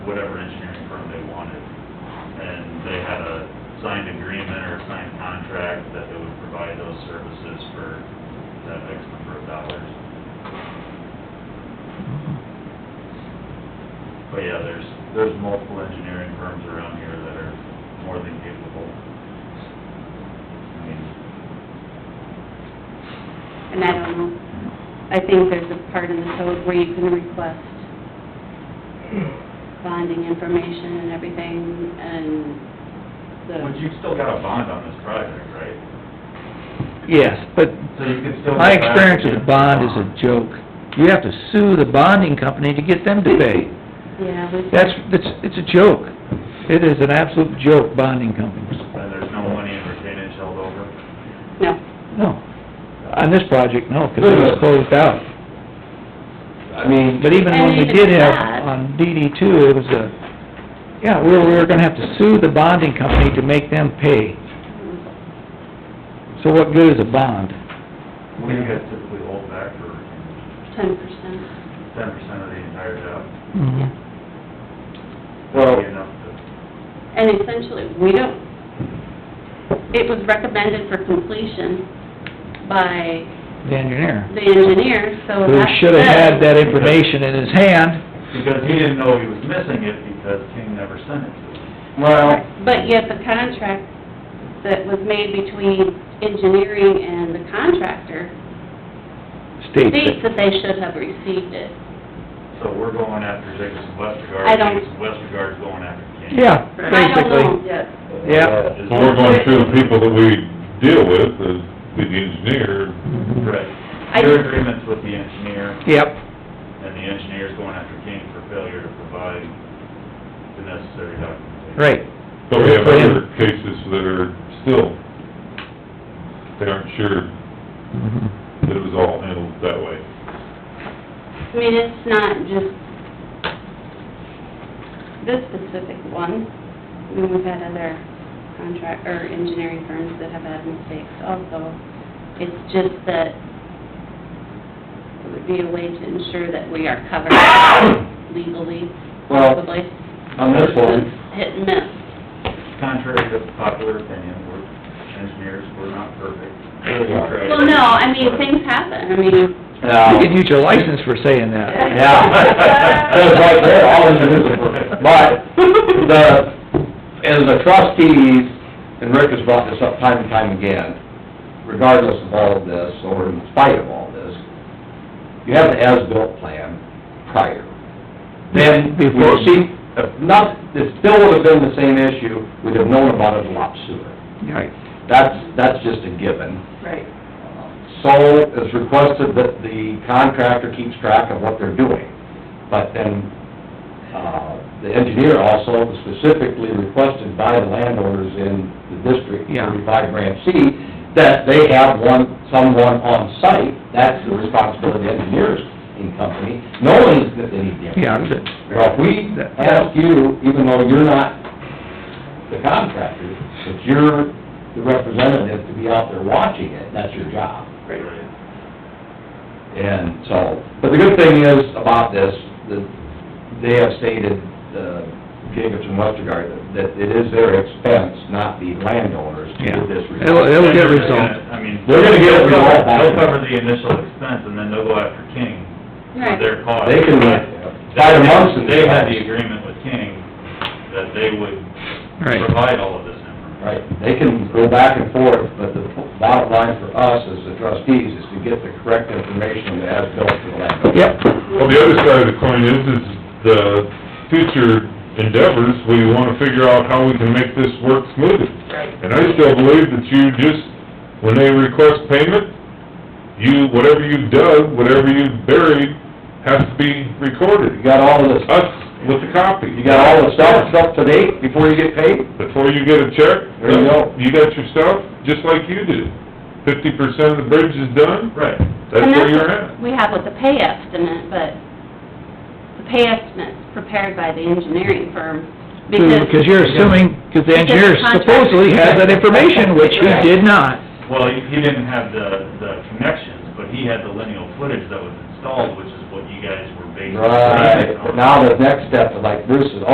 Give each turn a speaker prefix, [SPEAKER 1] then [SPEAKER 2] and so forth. [SPEAKER 1] whatever engineering firm they wanted. And they had a signed agreement or a signed contract that they would provide those services for that X number of dollars. But yeah, there's, there's multiple engineering firms around here that are more than capable. I mean,
[SPEAKER 2] And I don't know, I think there's a part in the code where you can request bonding information and everything, and the,
[SPEAKER 1] but you've still got a bond on this project, right?
[SPEAKER 3] Yes, but
[SPEAKER 1] So you could still.
[SPEAKER 3] my
[SPEAKER 1] go back
[SPEAKER 3] experience with a
[SPEAKER 1] and-
[SPEAKER 3] bond is a joke. You have to sue the bonding company to get them to pay.
[SPEAKER 2] yeah, we-
[SPEAKER 3] That's, it's, it's a joke. It is an absolute joke, bonding companies.
[SPEAKER 1] And there's no money in retainage held over?
[SPEAKER 2] no.
[SPEAKER 3] No. On this project, no, because it was closed out.
[SPEAKER 4] I mean,
[SPEAKER 3] But even when we
[SPEAKER 2] And even
[SPEAKER 3] did have,
[SPEAKER 2] that-
[SPEAKER 3] on DD two, it was a, yeah, we were, we were gonna have to sue the bonding company to make them pay. So what good is a bond?
[SPEAKER 1] What do you guys typically hold back for retainage?
[SPEAKER 2] Ten percent,
[SPEAKER 1] Ten percent of the entire job?
[SPEAKER 2] yeah.
[SPEAKER 4] well,
[SPEAKER 1] Be enough to-
[SPEAKER 2] And essentially, we don't, it was recommended for completion by
[SPEAKER 3] The engineer,
[SPEAKER 2] the engineer, so
[SPEAKER 3] who
[SPEAKER 2] that
[SPEAKER 3] should have had that
[SPEAKER 2] says-
[SPEAKER 3] information in his hand,
[SPEAKER 1] Because he didn't know he was missing it because King never sent it to him.
[SPEAKER 4] well,
[SPEAKER 2] But yet the contract that was made between engineering and the contractor
[SPEAKER 3] states
[SPEAKER 2] states
[SPEAKER 3] it.
[SPEAKER 2] that they should have received it.
[SPEAKER 1] So we're going after Jacobson Westergaard.
[SPEAKER 2] I don't-
[SPEAKER 1] Jacobson Westergaard's going after King.
[SPEAKER 3] Yeah,
[SPEAKER 2] I don't
[SPEAKER 3] basically.
[SPEAKER 2] know, yeah.
[SPEAKER 3] Yeah.
[SPEAKER 1] Is-
[SPEAKER 5] So we're going through the people that we deal with, the, the engineer,
[SPEAKER 1] Right.
[SPEAKER 2] I-
[SPEAKER 1] Your agreement's with the engineer,
[SPEAKER 3] Yep,
[SPEAKER 1] and the engineer's going after King for failure to provide the necessary documentation.
[SPEAKER 3] right.
[SPEAKER 5] so we have other cases that are still, they aren't sure that it was all handled that way.
[SPEAKER 2] I mean, it's not just this specific one. I mean, we've had other contract, or engineering firms that have had mistakes also. It's just that it would be a way to ensure that we are covered legally,
[SPEAKER 4] Well,
[SPEAKER 2] possibly.
[SPEAKER 4] on this one,
[SPEAKER 2] It's Hit and miss.
[SPEAKER 1] Contrary to popular opinion, we're engineers, we're not perfect.
[SPEAKER 4] We are.
[SPEAKER 2] Well, no, I mean, things happen, I mean,
[SPEAKER 4] now,
[SPEAKER 3] You can use your license for saying that.
[SPEAKER 4] yeah, it was right there, all in the newspaper. But the, and the trustees, and Rick has brought this up time and time again, regardless of all of this, or in spite of all this, you have an as-built plan prior. Then, before, see, if not, it still would have been the same issue, we'd have known about it a lot sooner.
[SPEAKER 3] Right.
[SPEAKER 4] That's, that's just a given.
[SPEAKER 2] Right.
[SPEAKER 4] So it's requested that the contractor keeps track of what they're doing. But then, uh, the engineer also specifically requested by the landowners in the District
[SPEAKER 3] Yeah.
[SPEAKER 4] thirty-five branch C that they have one, someone on site. That's the responsibility of the engineers in company, knowing that they need the
[SPEAKER 3] Yeah,
[SPEAKER 4] engineer.
[SPEAKER 3] but-
[SPEAKER 4] Well, if we ask you, even though you're not the contractor, but you're the representative to be out there watching it, that's your job.
[SPEAKER 1] Right.
[SPEAKER 4] And so, but the good thing is about this, that they have stated, uh, Jacobs and Westergaard, that- that it is their expense, not the landowners, to
[SPEAKER 3] Yeah.
[SPEAKER 4] get this
[SPEAKER 3] It'll,
[SPEAKER 4] resolved.
[SPEAKER 3] it'll get
[SPEAKER 1] They're gonna-
[SPEAKER 3] resolved.
[SPEAKER 1] I mean.
[SPEAKER 4] They're gonna get it
[SPEAKER 1] they'll cover-
[SPEAKER 4] resolved.
[SPEAKER 1] They'll cover the initial expense, and then they'll go after King for
[SPEAKER 2] Right.
[SPEAKER 1] their cost.
[SPEAKER 4] They can, by the months and...
[SPEAKER 1] They had the agreement with King that they would
[SPEAKER 3] Right.
[SPEAKER 1] provide all of this information.
[SPEAKER 4] Right, they can go back and forth, but the bottom line for us as the trustees is to get the correct information that has built to the landowner.
[SPEAKER 3] Yep,
[SPEAKER 5] Well, the other side of the coin is, is the future endeavors, we wanna figure out how we can make this work smoother. And I still believe that you just, when they request payment, you, whatever you dug, whatever you buried, has to be
[SPEAKER 4] You
[SPEAKER 5] recorded.
[SPEAKER 4] got all of this,
[SPEAKER 5] Us with the copy.
[SPEAKER 4] you got all the stuff up to date before you get paid?
[SPEAKER 5] Before you get a check,
[SPEAKER 4] There you go.
[SPEAKER 5] you got your stuff, just like you did. Fifty percent of the bridge is done,
[SPEAKER 1] Right.
[SPEAKER 5] that's
[SPEAKER 2] And
[SPEAKER 5] where
[SPEAKER 2] that's
[SPEAKER 5] you're
[SPEAKER 2] what
[SPEAKER 5] at.
[SPEAKER 2] We have with the pay estimate, but the pay estimate's prepared by the engineering firm, because...
[SPEAKER 3] because Hmm, you're assuming, because the engineer supposedly has that information, which he did not.
[SPEAKER 1] Well, he he didn't have the, the connections, but he had the lineal footage that was installed, which is what you guys were basing. the
[SPEAKER 4] Right,
[SPEAKER 1] payment on.
[SPEAKER 4] but now the next step, like Bruce is,